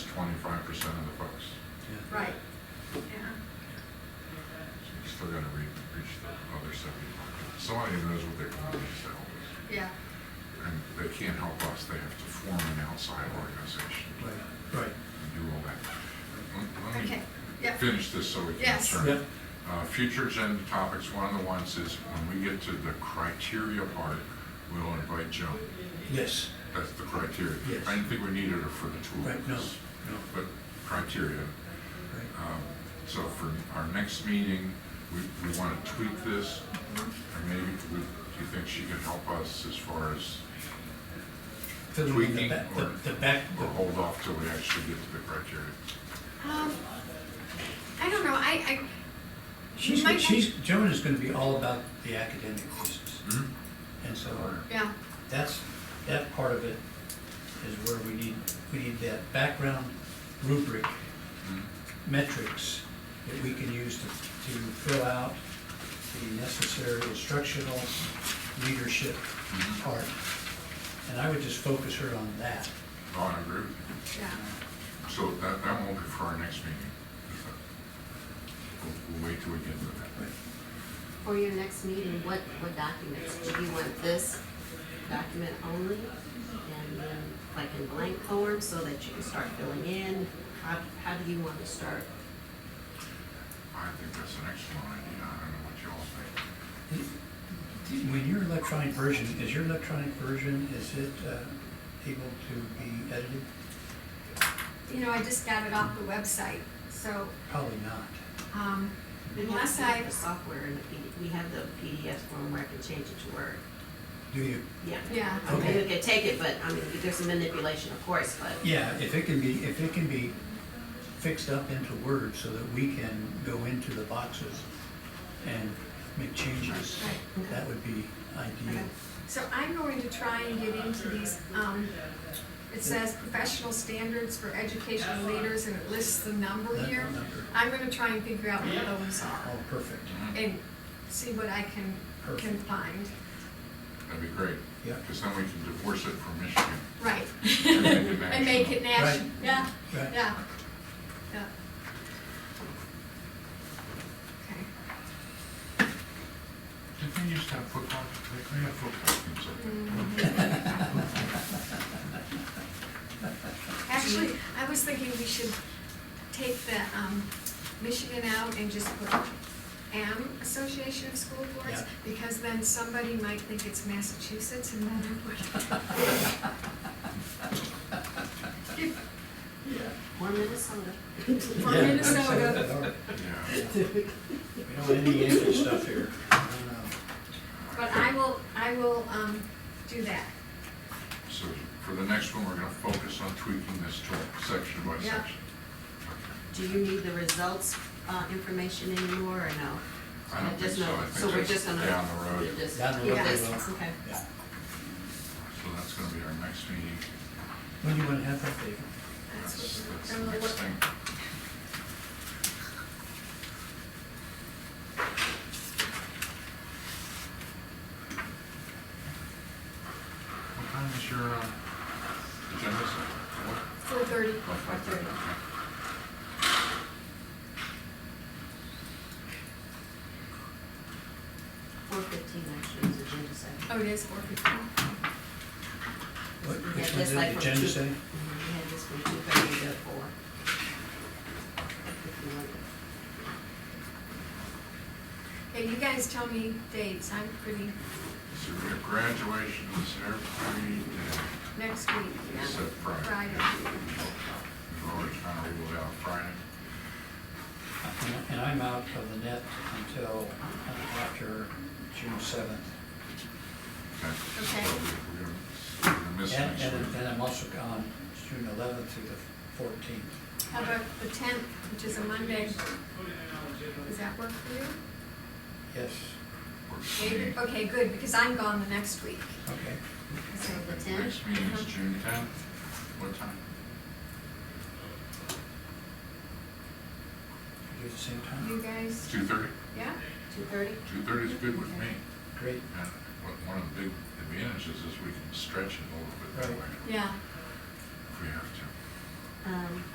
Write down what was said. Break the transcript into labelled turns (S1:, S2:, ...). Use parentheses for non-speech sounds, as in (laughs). S1: twenty-five percent of the folks.
S2: Right, yeah.
S1: You Still gotta re- reach the other seventy-five. Somebody knows what their community is to help us.
S2: Yeah,
S1: And they can't help us, they have to form an outside organization
S3: Right, right.
S1: and do all that. Let- let me
S2: okay, yeah,
S1: Finish this so we can
S2: Yes.
S1: turn.
S3: Yep.
S1: Uh, Future agenda topics, one of the ones is when we get to the criteria part, we'll invite Joan.
S3: Yes,
S1: That's the criteria.
S3: Yes.
S1: I didn't think we needed her for the two
S3: right,
S1: of
S3: no,
S1: us.
S3: no,
S1: But criteria,
S3: right,
S1: Um, So for our next meeting, we, we want to tweak this, or maybe, we- do you think she can help us as far as,
S3: filling in the
S1: Tweaking
S3: back,
S1: or-
S3: the, the back,
S1: or hold off till we actually get to the criteria?
S2: um, I don't know, I, I.
S3: she's,
S2: might-
S3: she's, Joan is gonna be all about the academic pieces,
S1: Hmm?
S3: and so
S2: Yeah,
S3: that's, that part of it is where we need, we need that background rubric,
S1: Hmm?
S3: metrics that we can use to, to fill out the necessary instructional leadership
S1: Mhm.
S3: part. And I would just focus her on that.
S1: Oh, I agree with you.
S2: yeah,
S1: So that, that won't be for our next meeting. is it? We'll, we'll wait till we get to that.
S4: For your next meeting, what, what documents? Do you want this document only? And then like in blank form so that you can start filling in? How, how do you want to start?
S1: I think that's an excellent idea, I don't know what you all think.
S3: When your electronic version, is your electronic version, is it uh, able to be edited?
S2: you know, I just got it off the website, so,
S3: Probably not.
S2: um,
S4: We have
S2: unless
S4: to have
S2: I,
S4: The software and the P we have the PDF form where I can change it to Word.
S3: Do you?
S4: Yeah.
S2: yeah,
S4: I mean,
S3: Okay.
S4: you can take it, but I mean, there's some manipulation, of course, but.
S3: Yeah, if it can be, if it can be fixed up into Word so that we can go into the boxes and make changes,
S2: Right.
S3: that would be ideal.
S2: okay. So I'm going to try and get into these, um, it says professional standards for educational leaders and it lists the number
S3: That
S2: here.
S3: number.
S2: I'm gonna try and figure out what those are
S3: Oh,
S2: (laughs)
S3: perfect.
S2: and see what I can, can
S3: Perfect.
S2: find.
S1: That'd be great,
S3: Yeah,
S1: because then we can divorce it from Michigan.
S2: Right.
S1: And make it
S2: And make it national,
S3: Right.
S2: yeah,
S3: right.
S2: yeah, yeah. Okay.
S1: Did they used to have football, they they have football teams up there?
S2: Mm-hmm. Actually, I was thinking we should take the, um, Michigan out and just put M Association of School Boards,
S3: Yeah.
S2: because then somebody might think it's Massachusetts and then it would.
S4: Or Minnesota.
S2: Or
S3: Yeah. (laughs)
S2: Minnesota.
S1: Yeah.
S2: (laughs)
S3: We don't have any Yankee stuff here.
S2: Mm-hmm. But I will, I will, um, do that.
S1: So for the next one, we're gonna focus on tweaking this tool, section by
S2: Yeah.
S1: section.
S4: Do you need the results, uh, information anymore or no?
S1: I don't think
S4: Just
S1: so,
S4: no.
S1: I
S4: So we're
S1: think
S4: just
S1: that's
S4: gonna.
S1: down the road.
S4: just-
S3: Down the road,
S2: Yeah.
S3: we
S4: Yes,
S3: will.
S4: okay.
S3: Yeah.
S1: So that's gonna be our next meeting.
S3: When do you wanna have that, David?
S2: That's
S1: That's,
S2: what
S1: that's
S2: we're-
S1: the
S2: I'm gonna
S1: next
S2: look-
S1: thing. What time is your, uh, agenda set? What?
S2: Four thirty.
S1: Oh, five thirty, okay.
S4: Four fifteen actually is agenda setting.
S2: Oh, it is four fifteen.
S3: What,
S4: Yeah,
S3: which one's
S4: just like
S3: the
S4: from
S3: agenda
S4: two-
S3: say?
S4: Mhm, We had this from two thirty to four. If you want it.
S2: Hey, you guys tell me dates, I'm pretty,
S1: So we have graduations every day.
S2: next week, yeah,
S1: Except Friday.
S2: Friday.
S1: We've already kind of ruled out Friday.
S3: And- And I'm out of the net until uh, after June seventh.
S1: Okay.
S2: Okay.
S1: So we- We're gonna- we're gonna miss
S3: And,
S1: next
S3: and
S1: week.
S3: and I'm also gone June eleventh through the fourteenth.
S2: How about the tenth, which is a Monday? Does that work for you?
S3: Yes,
S1: We're-
S2: David? Okay, good, because I'm gone the next week.
S3: okay.
S4: So the
S1: Next meeting
S2: Uh-huh.
S1: is
S4: tenth?
S1: June tenth. What time?
S3: Do it at the same
S2: You
S3: time?
S2: guys,
S1: Two thirty?
S2: yeah?
S4: Two thirty?
S1: Two thirty is good with me.
S3: Great.
S1: And what- one of the big advantages is we can stretch it a little bit that
S3: Right.
S1: way
S2: Yeah.
S1: if we have to.
S4: Um,